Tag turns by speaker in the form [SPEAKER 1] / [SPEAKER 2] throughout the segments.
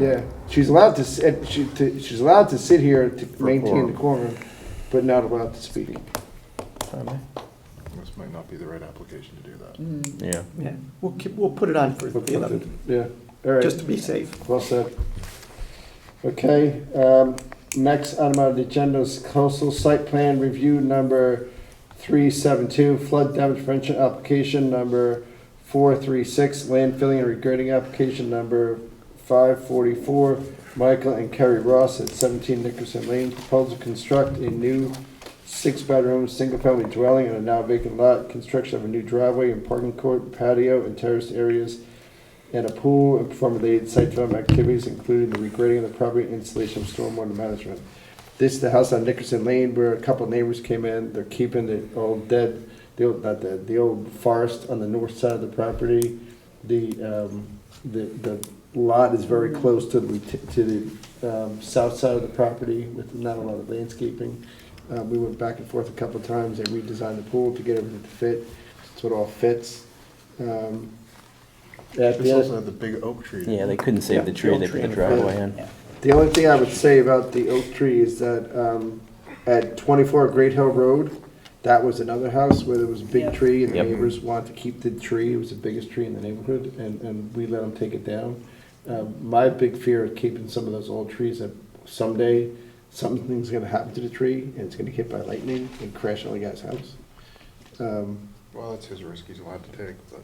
[SPEAKER 1] Yeah, she's allowed to, sit- she, to- she's allowed to sit here to maintain the quorum, but not allowed to speak.
[SPEAKER 2] This might not be the right application to do that.
[SPEAKER 3] Yeah.
[SPEAKER 4] Yeah, we'll keep, we'll put it on for the 11th,
[SPEAKER 1] Yeah, all right.
[SPEAKER 4] just to be safe.
[SPEAKER 1] Well said. Okay, um, next item on the agenda is coastal site plan review number three seven two, flood damage prevention application number four three six, landfilling and regrading application number five forty-four, Michael and Kerry Ross at seventeen Nickerson Lane, proposal to construct a new six-bedroom, single-family dwelling on a now vacant lot, construction of a new driveway and parking court, patio, and terraced areas and a pool and perform related site development activities, including the regrading of the property and installation of stormwater management. This is the house on Nickerson Lane where a couple neighbors came in, they're keeping the old dead, the old, not dead, the old forest on the north side of the property. The, um, the, the lot is very close to the, to the, um, south side of the property with not a lot of landscaping. Uh, we went back and forth a couple times, they redesigned the pool to get everything to fit, so it all fits. Um, at the
[SPEAKER 2] This
[SPEAKER 1] end-
[SPEAKER 2] also had the big oak tree.
[SPEAKER 3] Yeah, they couldn't save the tree, they put the driveway in.
[SPEAKER 1] The only thing I would say about the oak tree is that um, at 24 Great Hill Road, that was another house where there was a big tree and the
[SPEAKER 3] Yep.
[SPEAKER 1] neighbors wanted to keep the tree. It was the biggest tree in the neighborhood and, and we let them take it down. Um, My big fear of keeping some of those old trees that someday something's gonna happen to the tree and it's gonna get hit by lightning and crash on the guy's house. Um,
[SPEAKER 2] Well, that's his risk, he's allowed to take, but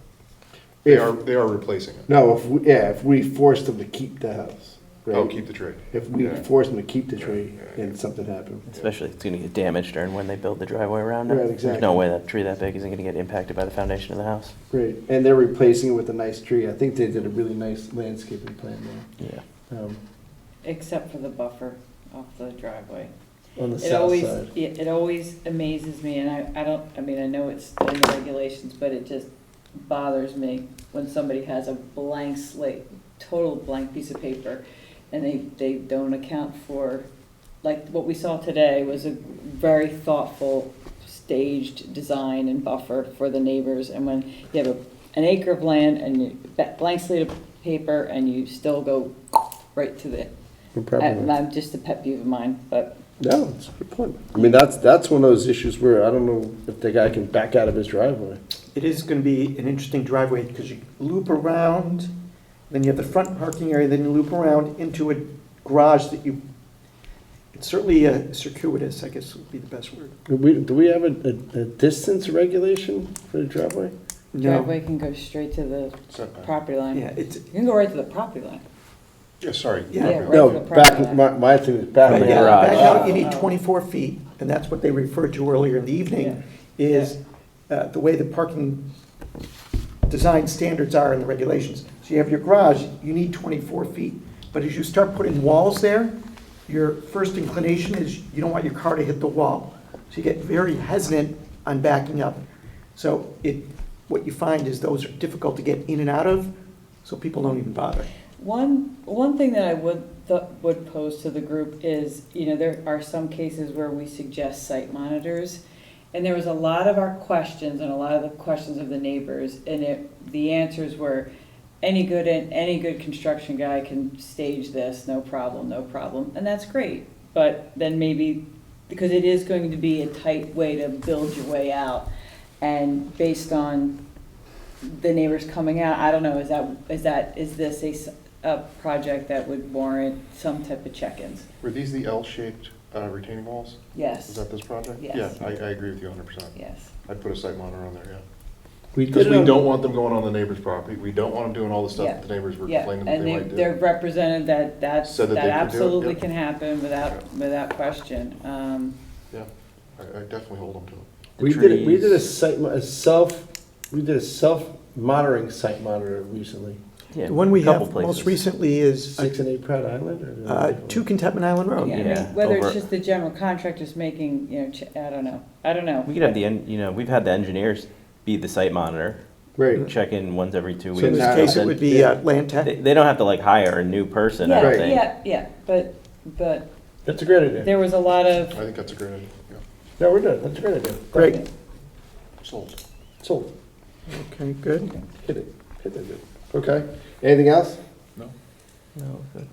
[SPEAKER 2] they
[SPEAKER 1] If,
[SPEAKER 2] are, they are replacing it.
[SPEAKER 1] no, if, we- yeah, if we forced them to keep the house, right?
[SPEAKER 2] Oh, keep the tree.
[SPEAKER 1] If we
[SPEAKER 2] Yeah.
[SPEAKER 1] forced them to keep the tree
[SPEAKER 2] Yeah, yeah, yeah.
[SPEAKER 1] and something happened.
[SPEAKER 3] Especially, it's gonna get damaged during when they build the driveway around it.
[SPEAKER 1] Right,
[SPEAKER 3] There's no
[SPEAKER 1] exactly.
[SPEAKER 3] way that tree that big isn't gonna get impacted by the foundation of the house.
[SPEAKER 1] Great, and they're replacing it with a nice tree. I think they did a really nice landscaping plan
[SPEAKER 3] Yeah.
[SPEAKER 1] there, um,
[SPEAKER 5] Except for the buffer off the driveway.
[SPEAKER 1] on the
[SPEAKER 5] It
[SPEAKER 1] south
[SPEAKER 5] always,
[SPEAKER 1] side.
[SPEAKER 5] it it always amazes me, and I, I don't, I mean, I know it's in the regulations, but it just bothers me when somebody has a blank slate, total blank piece of paper, and they, they don't account for, like, what we saw today was a very thoughtful, staged design and buffer for the neighbors, and when you have a, an acre of land and you, that blank slate of paper, and you still go right to the, and Uh, I'm just a pet peeve of mine, but
[SPEAKER 1] No, it's a good point. I mean, that's, that's one of those issues where I don't know if the guy can back out of his driveway.
[SPEAKER 4] It is going to be an interesting driveway because you loop around, then you have the front parking area, then you loop around into a garage that you, it's certainly uh, circuitous, I guess would be the best word.
[SPEAKER 1] Do we, do we have a, a, a distance regulation for the driveway?
[SPEAKER 4] No,
[SPEAKER 5] driveway can go straight to the
[SPEAKER 2] Setback.
[SPEAKER 5] property line.
[SPEAKER 4] yeah,
[SPEAKER 5] You
[SPEAKER 4] it's,
[SPEAKER 5] can go right to the property line.
[SPEAKER 2] Yeah, sorry.
[SPEAKER 4] Yeah.
[SPEAKER 2] property
[SPEAKER 5] right.
[SPEAKER 2] line.
[SPEAKER 1] No,
[SPEAKER 5] to the
[SPEAKER 1] back,
[SPEAKER 5] property line.
[SPEAKER 1] my, my thing is back.
[SPEAKER 3] From the
[SPEAKER 4] yeah,
[SPEAKER 1] out.
[SPEAKER 3] garage.
[SPEAKER 4] back out, you need 24 feet, and that's what they referred to earlier in the evening, is uh, the way the parking design standards are in the regulations. So you have your garage, you need 24 feet, but as you start putting walls there, your first inclination is you don't want your car to hit the wall. So you get very hesitant on backing up. So it, what you find is those are difficult to get in and out of, so people don't even bother.
[SPEAKER 5] One, one thing that I would, th- would pose to the group is, you know, there are some cases where we suggest site monitors. And there was a lot of our questions and a lot of the questions of the neighbors, and it, the answers were, any good, any good construction guy can stage this, no problem, no problem, and that's great. But then maybe, because it is going to be a tight way to build your way out, and based on the neighbors coming out, I don't know, is that, is that, is this a, s- a project that would warrant some type of check-ins?
[SPEAKER 2] Were these the L-shaped uh, retaining walls? Is
[SPEAKER 5] Yes,
[SPEAKER 2] that this project?
[SPEAKER 5] Yes.
[SPEAKER 2] Yeah, I, I agree with you hundred percent.
[SPEAKER 5] yes.
[SPEAKER 2] I'd put a site monitor on there, yeah.
[SPEAKER 1] We
[SPEAKER 2] Because
[SPEAKER 1] did
[SPEAKER 2] we
[SPEAKER 1] it
[SPEAKER 2] don't
[SPEAKER 1] on,
[SPEAKER 2] want them going on the neighbor's property. We don't want them doing all the stuff
[SPEAKER 5] Yeah.
[SPEAKER 2] that the neighbors were
[SPEAKER 5] Yeah,
[SPEAKER 2] complaining that
[SPEAKER 5] and
[SPEAKER 2] they
[SPEAKER 5] they,
[SPEAKER 2] might do.
[SPEAKER 5] they're represented that, that,
[SPEAKER 2] Said that
[SPEAKER 5] that
[SPEAKER 2] they could do it,
[SPEAKER 5] absolutely
[SPEAKER 2] yeah.
[SPEAKER 5] can happen without, without question. Um,
[SPEAKER 2] Yeah, I, I definitely hold them to it.
[SPEAKER 3] The
[SPEAKER 1] we did, it- we did a
[SPEAKER 3] trees-
[SPEAKER 1] site, mo- a self, we did a self-monitoring site monitor recently.
[SPEAKER 3] yeah,
[SPEAKER 4] The one we
[SPEAKER 3] a couple
[SPEAKER 4] have most
[SPEAKER 3] places.
[SPEAKER 4] recently is uh,
[SPEAKER 1] Six and eight Pratt Island or?
[SPEAKER 4] uh, 2 Contentment Island Road.
[SPEAKER 5] yeah, I
[SPEAKER 3] Oh, yeah,
[SPEAKER 5] mean, whether
[SPEAKER 3] over-
[SPEAKER 5] it's just the general contractors making, you know, ch- I don't know, I don't know.
[SPEAKER 3] We could have the, en- you know, we've had the engineers be the site monitor,
[SPEAKER 1] Right.
[SPEAKER 3] check in once every two
[SPEAKER 1] So
[SPEAKER 3] weeks.
[SPEAKER 4] So in
[SPEAKER 1] Nah.
[SPEAKER 4] this case, it would be uh, Land
[SPEAKER 3] They,
[SPEAKER 4] Tech.
[SPEAKER 3] they don't have to like hire a new person, I
[SPEAKER 5] Yeah,
[SPEAKER 3] don't
[SPEAKER 1] Right.
[SPEAKER 3] think.
[SPEAKER 5] yeah, yeah, but, but
[SPEAKER 1] That's a great idea.
[SPEAKER 5] there was a lot
[SPEAKER 2] I
[SPEAKER 5] of,
[SPEAKER 2] think that's a great idea. Yeah.
[SPEAKER 1] No, we're done. That's a great idea.
[SPEAKER 4] Great.
[SPEAKER 2] Sold.
[SPEAKER 1] Sold.
[SPEAKER 4] Okay, good.
[SPEAKER 1] Hit it. Hit that dude. Okay. Anything else?
[SPEAKER 2] No?
[SPEAKER 4] No, good.